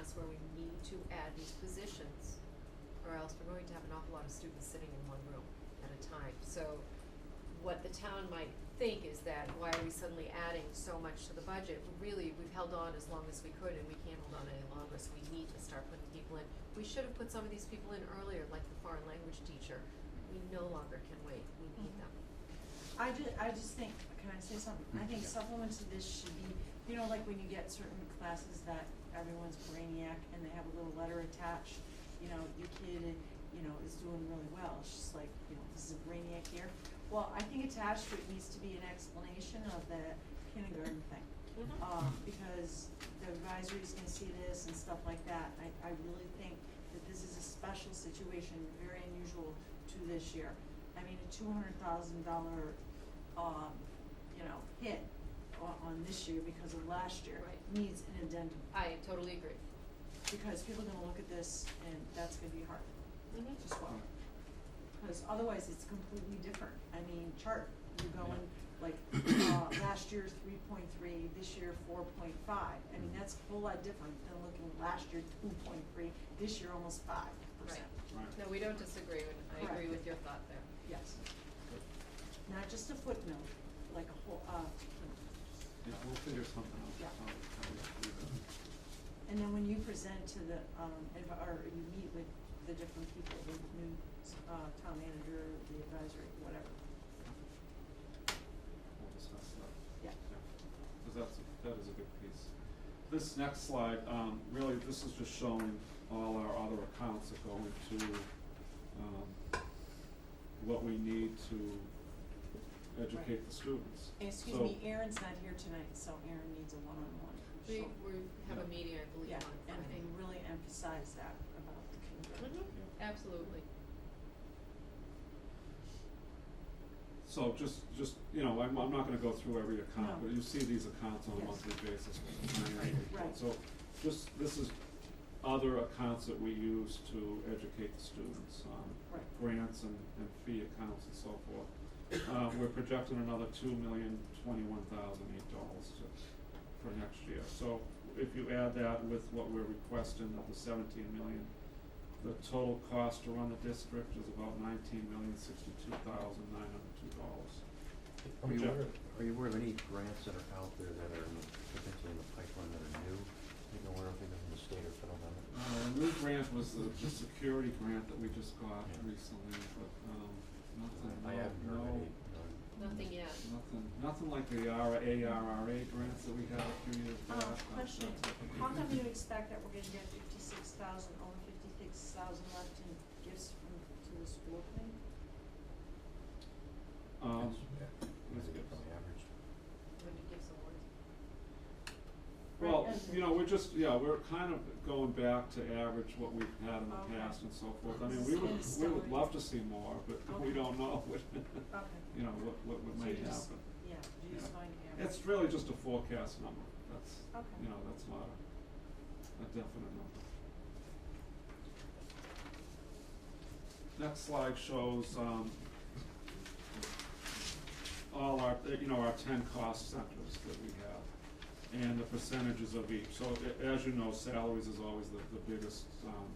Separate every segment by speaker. Speaker 1: us where we need to add these positions, or else we're going to have an awful lot of students sitting in one room at a time. So what the town might think is that why are we suddenly adding so much to the budget? Really, we've held on as long as we could and we can't hold on any longer, so we need to start putting people in. We should have put some of these people in earlier, like the foreign language teacher. We no longer can wait, we need
Speaker 2: Mhm.
Speaker 1: them.
Speaker 2: I ju- I just think, can I say something? I think supplements to this should be, you know, like when you get certain classes that everyone's brainiac and they have a little letter attached, you know, your kid, you know, is doing really well, it's just like, you know, this is a brainiac here. Well, I think attached to it needs to be an explanation of the kindergarten thing. Um, because the advisory's gonna see this and stuff like that, I, I really think that this is a special situation, very unusual to this year. I mean, a two hundred thousand dollar, um, you know, hit on, on this year because of last year
Speaker 1: Right.
Speaker 2: needs an addendum,
Speaker 1: I totally agree.
Speaker 2: because people are gonna look at this and that's gonna be hard
Speaker 1: Mm-hmm.
Speaker 2: as well. Cause otherwise it's completely different, I mean, chart, you're going like, uh, last year three point three, this year four point five. I mean, that's a whole lot different than looking last year two point three, this year almost five percent.
Speaker 3: Right.
Speaker 1: No, we don't disagree, and I agree
Speaker 2: Correct.
Speaker 1: with your thought there.
Speaker 2: Yes, not just a footnote, like a whole, uh, footnote.
Speaker 3: Yeah, we'll figure something out.
Speaker 2: Yeah.
Speaker 3: How- how we do that.
Speaker 2: and then when you present to the, um, adv- or you meet with the different people, the new, uh, town manager, the advisory, whatever.
Speaker 3: We'll discuss that.
Speaker 2: Yeah.
Speaker 3: Because that's, a- that is a big piece. This next slide, um, really, this is just showing all our other accounts that go into, um, what we need to educate
Speaker 2: Right.
Speaker 3: the students.
Speaker 2: Excuse
Speaker 3: So-
Speaker 2: me, Aaron's not here tonight, so Aaron needs a one-on-one,
Speaker 1: We,
Speaker 2: so-
Speaker 1: we have a
Speaker 3: Yeah.
Speaker 1: meeting, I believe,
Speaker 2: Yeah,
Speaker 1: on
Speaker 2: and
Speaker 1: Friday.
Speaker 2: they really emphasize that about the kindergarten.
Speaker 4: Mm-hmm.
Speaker 1: Mhm. absolutely.
Speaker 3: So just, just, you know, I'm, I'm not gonna go through every account,
Speaker 2: No.
Speaker 3: but you see these accounts on a
Speaker 2: Yes.
Speaker 3: monthly basis. with the annual report.
Speaker 2: Right.
Speaker 3: So just, this is other accounts that we use to educate the students
Speaker 1: Mm-hmm.
Speaker 3: on
Speaker 2: Right.
Speaker 3: grants and, and fee accounts and so forth. Uh, we're projecting another two million twenty-one thousand eight dollars to, for next year. So if you add that with what we're requesting of the seventeen million, the total cost to run the district is about nineteen million sixty-two thousand nine hundred two dollars.
Speaker 5: Are you
Speaker 3: Yeah.
Speaker 5: aware, of- are you aware of any grants that are out there that are in- potentially in the pipeline that are new? Are you aware of either from the state or federal government?
Speaker 3: Uh, the new grant was the, the security grant that we just got
Speaker 5: Yeah.
Speaker 3: recently, but, um, nothing,
Speaker 5: I
Speaker 3: no-
Speaker 5: haven't heard
Speaker 3: Uh, no,
Speaker 5: of any, no.
Speaker 1: Nothing yet.
Speaker 3: nothing, nothing like the ARRA grants that we had a few years
Speaker 2: Uh,
Speaker 3: back. uh,
Speaker 2: question,
Speaker 3: that's what-
Speaker 2: how come you expect that we're gonna get fifty-six thousand, over fifty-six thousand left in gifts from, to the school thing?
Speaker 3: Um,
Speaker 5: Is it from the average?
Speaker 1: When you give some words.
Speaker 3: Well,
Speaker 2: Right, and-
Speaker 3: you know, we're just, yeah, we're kind of going back to average what we've had in
Speaker 2: Okay.
Speaker 3: the past and so forth. I mean,
Speaker 2: This
Speaker 3: we
Speaker 2: is
Speaker 3: would,
Speaker 2: good
Speaker 3: we would
Speaker 2: story.
Speaker 3: love to see more, but we
Speaker 2: Okay.
Speaker 3: don't know what,
Speaker 2: Okay.
Speaker 3: you know, what, what what
Speaker 2: So
Speaker 3: may
Speaker 2: you just-
Speaker 3: happen.
Speaker 2: Yeah, you just
Speaker 3: Yeah.
Speaker 2: find Aaron.
Speaker 3: It's really just a forecast number, that's,
Speaker 2: Okay.
Speaker 3: you know, that's not a, a definite number. Next slide shows, um, all our, you know, our ten cost centers that we have, and the percentages of each. So a- as you know, salaries is always the, the biggest, um,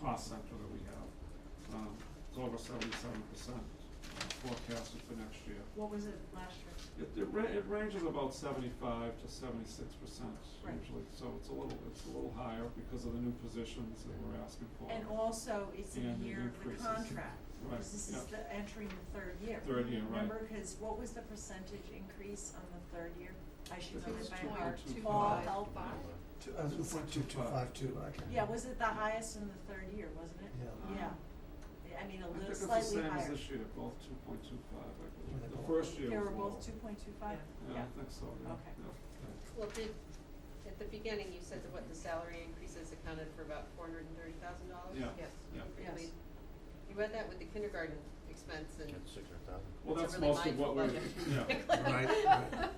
Speaker 3: cost center that we have. Um, it's over seventy-seven percent uh, forecasted for next year.
Speaker 2: What was it last year?
Speaker 3: It, it ra- it ranges about seventy-five to seventy-six percent
Speaker 2: Right.
Speaker 3: usually, so it's a little, it's a little higher because of the new positions that we're asking for.
Speaker 2: And also, it's in
Speaker 3: And the
Speaker 2: year of the
Speaker 3: increases.
Speaker 2: contract,
Speaker 3: Right,
Speaker 2: because this is
Speaker 3: yeah.
Speaker 2: the, entering the third year.
Speaker 3: Third year, right.
Speaker 2: Remember, cause what was the percentage increase on the third year? I should
Speaker 3: It
Speaker 2: know
Speaker 3: was
Speaker 2: it by
Speaker 3: two
Speaker 2: heart,
Speaker 3: point two
Speaker 2: all
Speaker 3: five.
Speaker 2: help.
Speaker 6: Two, uh, two point two two five two, I can.
Speaker 2: Yeah, was it the highest in the third year, wasn't it?
Speaker 6: Yeah.
Speaker 2: Yeah. I mean, a
Speaker 3: I
Speaker 2: little
Speaker 3: think it's
Speaker 2: slightly
Speaker 3: the
Speaker 2: higher.
Speaker 3: same as this year, both two point two five, I
Speaker 6: Were
Speaker 3: believe. The
Speaker 6: they both-
Speaker 3: first year
Speaker 2: They were
Speaker 3: was lower.
Speaker 2: both two point two five?
Speaker 3: Yeah, I think so, yeah,
Speaker 2: Okay.
Speaker 3: yeah.
Speaker 4: Well, did, at the beginning, you said that what the salary increases accounted for about four hundred and thirty thousand dollars?
Speaker 3: Yeah.
Speaker 1: Yes.
Speaker 3: Yeah.
Speaker 2: Yes.
Speaker 4: You read that with the kindergarten expense and
Speaker 5: That's six hundred thousand?
Speaker 3: Well,
Speaker 4: it's a
Speaker 3: that's
Speaker 4: really
Speaker 3: most of
Speaker 4: mindful
Speaker 3: what we're,
Speaker 4: budget.
Speaker 3: yeah.
Speaker 6: Right, right.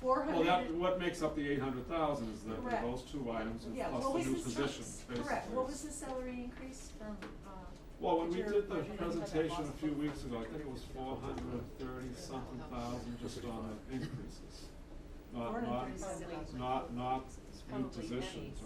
Speaker 2: Four
Speaker 3: Well,
Speaker 2: hundred.
Speaker 3: that, what makes up the eight hundred thousand is that
Speaker 2: Correct.
Speaker 3: those two items and
Speaker 2: Yeah,
Speaker 3: plus
Speaker 2: what
Speaker 3: the
Speaker 2: was
Speaker 3: new
Speaker 2: the
Speaker 3: positions,
Speaker 2: sal-
Speaker 3: basically.
Speaker 2: Correct, what was the salary increase from, uh?
Speaker 3: Well, when we
Speaker 2: your
Speaker 3: did the
Speaker 2: budget?
Speaker 3: presentation a few weeks ago, I think it was four hundred and thirty something thousand just on the increases. Not, not,
Speaker 2: 435.
Speaker 3: not, not new
Speaker 1: probably
Speaker 3: positions
Speaker 1: pennies.